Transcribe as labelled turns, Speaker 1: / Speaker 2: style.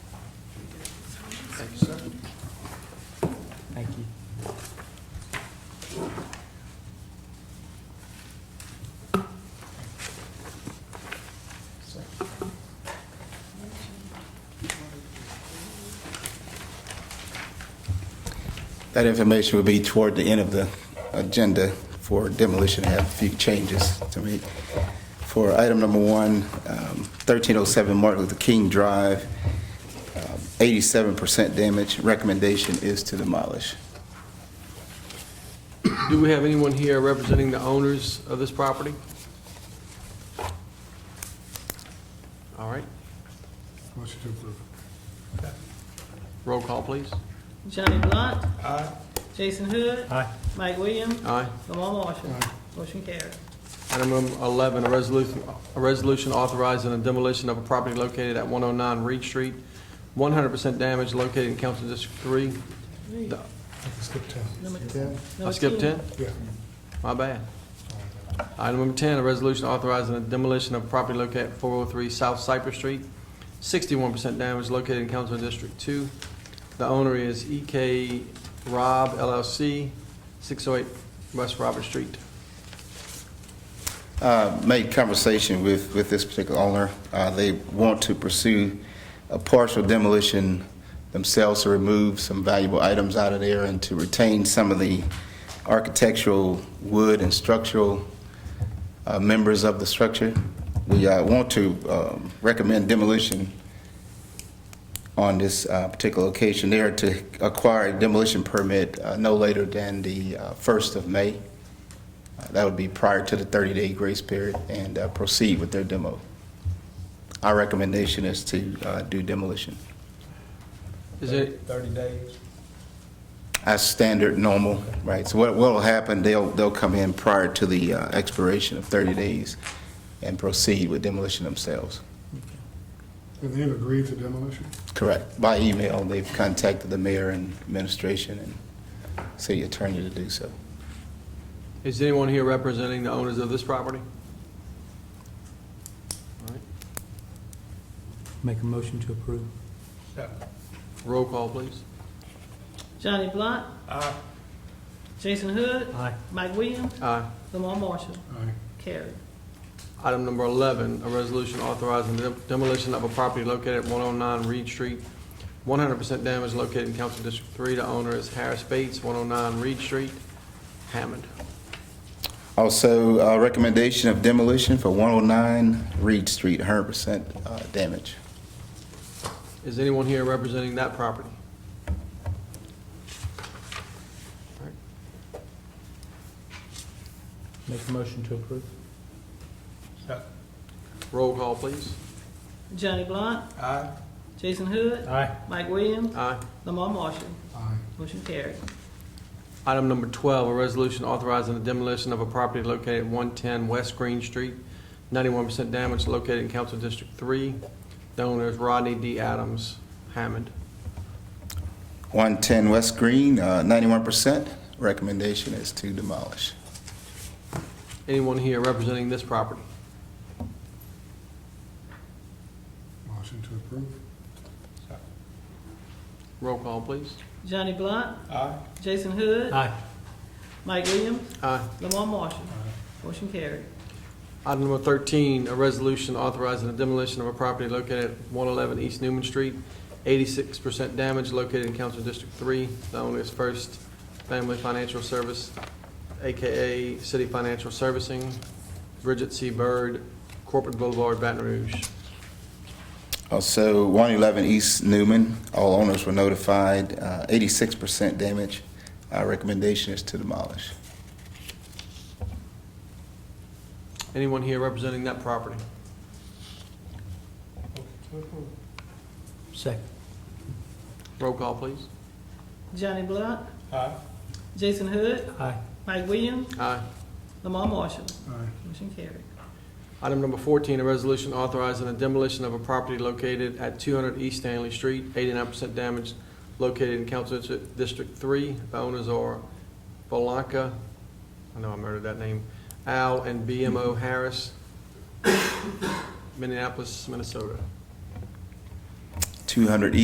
Speaker 1: Thank you.
Speaker 2: That information will be toward the end of the agenda for demolition. I have a few changes to make. For item number one, um, 1307 Martin Luther King Drive, um, 87% damage. Recommendation is to demolish.
Speaker 3: Do we have anyone here representing the owners of this property? All right,
Speaker 4: Motion to approve.
Speaker 3: roll call, please.
Speaker 5: Johnny Blunt. Aye. Jason Hood. Aye. Mike Williams.
Speaker 3: Aye.
Speaker 5: Lamar Marshall. Motion carried.
Speaker 3: Item number 11, a resolution, a resolution authorizing the demolition of a property located at 109 Reed Street, 100% damage located in Council District 3. The-
Speaker 4: Skip 10.
Speaker 5: Number
Speaker 4: Ten?
Speaker 3: I
Speaker 5: Number
Speaker 3: skipped 10?
Speaker 4: Yeah.
Speaker 3: My bad. Item number 10, a resolution authorizing the demolition of property located at 403 South Cypress Street, 61% damage located in Council District 2. The owner is EK Rob LLC, 608 West Robert Street.
Speaker 2: uh, made conversation with, with this particular owner. Uh, They want to pursue a partial demolition themselves to remove some valuable items out of there and to retain some of the architectural wood and structural uh, members of the structure. We uh, want to um, recommend demolition on this uh, particular location there to acquire a demolition permit uh, no later than the uh, 1st of May. Uh, That would be prior to the 30-day grace period and uh, proceed with their demo. Our recommendation is to uh, do demolition
Speaker 3: Is it,
Speaker 6: 30 days?
Speaker 2: as standard, normal, right? So what will happen, they'll, they'll come in prior to the uh, expiration of 30 days and proceed with demolition themselves.
Speaker 4: And they've agreed to demolition?
Speaker 2: Correct. By email, they've contacted the mayor and administration and city attorney to do so.
Speaker 3: is anyone here representing the owners of this property? All right,
Speaker 1: Make a motion to approve.
Speaker 3: Roll call, please.
Speaker 5: Johnny Blunt. Aye. Jason Hood.
Speaker 1: Aye.
Speaker 5: Mike Williams.
Speaker 3: Aye.
Speaker 5: Lamar Marshall.
Speaker 4: Aye.
Speaker 5: Carried.
Speaker 3: Item number 11, a resolution authorizing the demolition of a property located at 109 Reed Street, 100% damage located in Council District 3. The owner is Harris Bates, 109 Reed Street, Hammond.
Speaker 2: Also, uh, recommendation of demolition for 109 Reed Street, 100% uh, damage.
Speaker 3: Is anyone here representing that property? All right,
Speaker 1: Make a motion to approve.
Speaker 3: Roll call, please.
Speaker 5: Johnny Blunt. Aye. Jason Hood.
Speaker 1: Aye.
Speaker 5: Mike Williams.
Speaker 3: Aye.
Speaker 5: Lamar Marshall.
Speaker 4: Aye.
Speaker 5: Motion carried.
Speaker 3: Item number 12, a resolution authorizing the demolition of a property located at 110 West Green Street, 91% damage located in Council District 3. The owner is Rodney D. Adams, Hammond.
Speaker 2: 110 West Green, uh, 91%. Recommendation is to demolish.
Speaker 3: Anyone here representing this property?
Speaker 4: Motion to approve?
Speaker 3: Roll call, please.
Speaker 5: Johnny Blunt. Aye. Jason Hood.
Speaker 1: Aye.
Speaker 5: Mike Williams.
Speaker 3: Aye.
Speaker 5: Lamar Marshall. Motion carried.
Speaker 3: Item number 13, a resolution authorizing the demolition of a property located at 111 East Newman Street, 86% damage located in Council District 3. The owner is First Family Financial Service, AKA City Financial Servicing, Bridget C. Byrd, Corporate Boulevard, Baton Rouge.
Speaker 2: Also, 111 East Newman, all owners were notified, uh, 86% damage. Our recommendation is to demolish.
Speaker 3: Anyone here representing that property?
Speaker 1: Second.
Speaker 3: Roll call, please.
Speaker 5: Johnny Blunt. Aye. Jason Hood.
Speaker 1: Aye.
Speaker 5: Mike Williams.
Speaker 3: Aye.
Speaker 5: Lamar Marshall.
Speaker 4: Aye.
Speaker 5: Motion carried.
Speaker 3: Item number 14, a resolution authorizing the demolition of a property located at 200 East Stanley Street, 89% damage, located in Council District- District 3. The owners are Valanca, I know I murdered that name, Al and BMO Harris, Minneapolis, Minnesota.
Speaker 2: 200 East